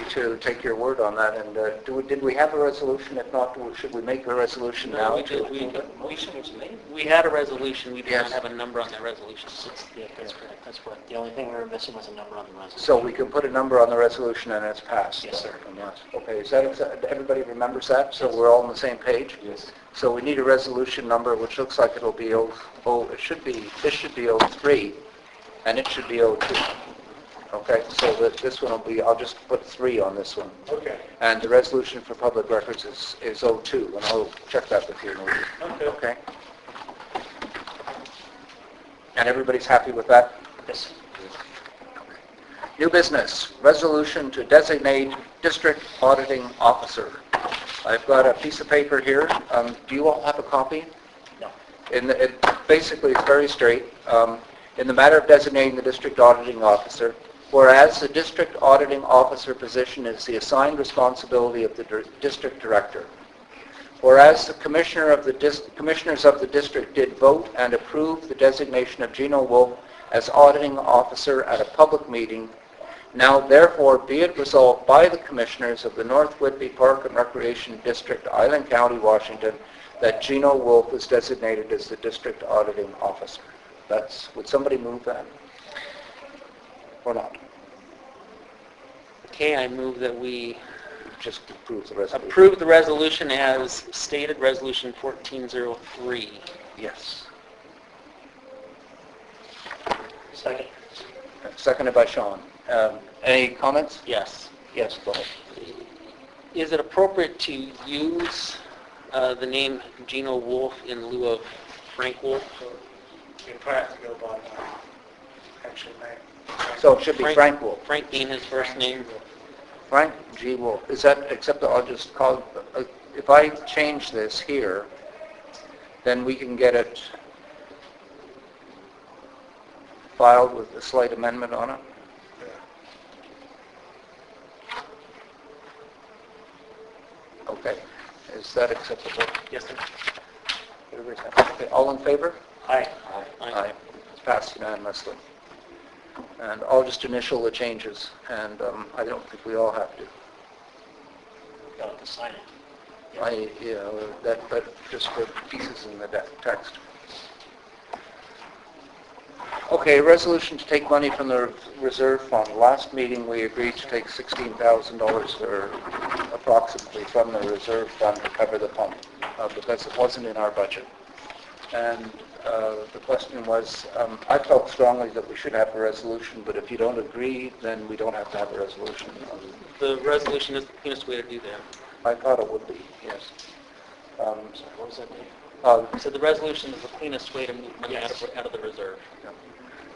to take your word on that, and uh, do we- did we have a resolution? If not, do we- should we make a resolution No, now? we to did, we, approve it? we should, we had a resolution, we did not Yes. have a number on that resolution. Yeah, that's correct, that's correct. The only thing we were missing was a number on the resolution. So we can put a number on the resolution and it's passed? Yes, sir. And that's- Okay, is that, accept- everybody remembers that? So we're all on the same page? Yes. So we need a resolution number, which looks like it'll be O, O- it should be, this should be 03, and it should be 02. Okay, so that this one will be, I'll just put 3 on this one. Okay. And the resolution for public records is, is 02, and I'll check that with you in a week. Okay. Okay? And everybody's happy with that? Yes. New business, resolution to designate district auditing officer. I've got a piece of paper here. Um, Do you all have a copy? No. In the, it, basically, it's very straight. Um, in the matter of designating the district auditing officer, whereas the district auditing officer position is the assigned responsibility of the dir- district director. Whereas the commissioner of the dis, commissioners of the district did vote and approve the designation of Gino Wolf as auditing officer at a public meeting, now therefore be it resolved by the commissioners of the North Whitby Park and Recreation District, Island County, Washington, that Gino Wolf is designated as the district auditing officer. That's, would somebody move that? Or not? Okay, I move that we Just approve the resolution. approve the resolution as stated, Resolution 1403. Yes. Second. Seconded by Sean. Um, Any comments? Yes. Yes, go ahead. Is it appropriate to use uh, the name Gino Wolf in lieu of Frank Wolf? You probably have to go by my actual name. So it should be Frank Wolf. Frank being his first name? Frank G. Wolf. Is that, except that I'll just call, uh, if I change this here, then we can get it filed with a slight amendment on it? Okay. Is that acceptable? Yes, sir. Everybody's happy? Okay, All in favor? Aye. Aye. It's passed unanimously. And I'll just initial the changes, and um, I don't think we all have to. Got to sign it. I, you know, that, but just for pieces in the de- text. Okay, resolution to take money from the reserve fund. Last meeting, we agreed to take $16,000 or approximately from the reserve fund to cover the pump, uh, because it wasn't in our budget. And uh, the question was, um, I felt strongly that we should have a resolution, but if you don't agree, then we don't have to have a resolution. Um, The resolution is the cleanest way to do that. I thought it would be, yes. Um, Sorry, what was that name? uh, So the resolution is the cleanest way to move money out of out of the reserve.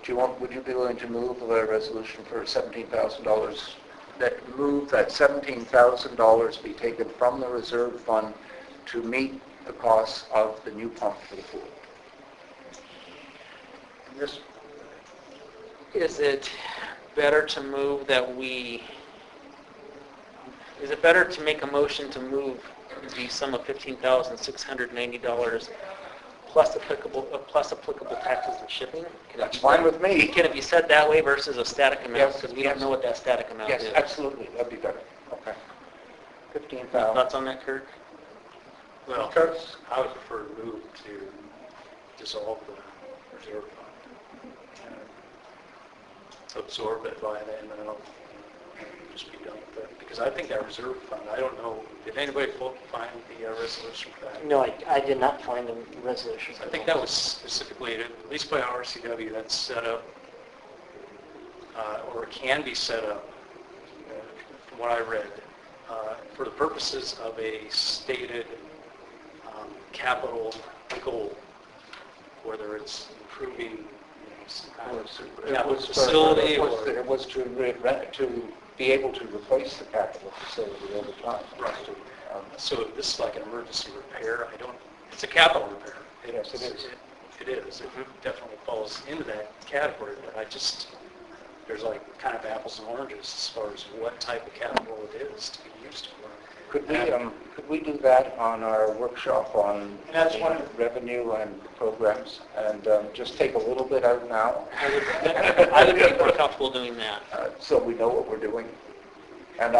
Do you want, would you be willing to move a resolution for $17,000, that move that $17,000 be taken from the reserve fund to meet the costs of the new pump for the pool? This, Is it better to move that we, is it better to make a motion to move the sum of $15,690 plus applicable, uh, plus applicable taxes and shipping? Can it That's be fine said- with me. Can it be said that way versus a static amount? Yes, Because we don't know what that static amount is. Yes, absolutely, that'd be better. Okay. $15,000. Thoughts on that, Kirk? well, I would prefer to move to dissolve the reserve fund. and Absorb it by the M and L and just be done with it. Because I think that reserve fund, I don't know, did anybody fo- find the uh, resolution for that? No, I, I did not find the resolution. I think that was specifically, at least by RCW, that's set up, uh, or it can be set up, uh, from what I read, uh, for the purposes of a stated um, capital goal, whether it's improving you know, some kind It of capital was for- facility it was- or... It was to, re- re- to be able to replace the capital facility over time. Right. Um, So this is like an emergency repair, I don't, it's a capital repair. Yes, it is. Mm-hmm. It is, it definitely falls into that category, but I just, there's like kind of apples and oranges as far as what type of capital it is to be used for. Could we, um, could we do that on our workshop on revenue and programs? And um, just take a little bit out now, I would- I would be more comfortable doing that. uh, so we know what we're doing.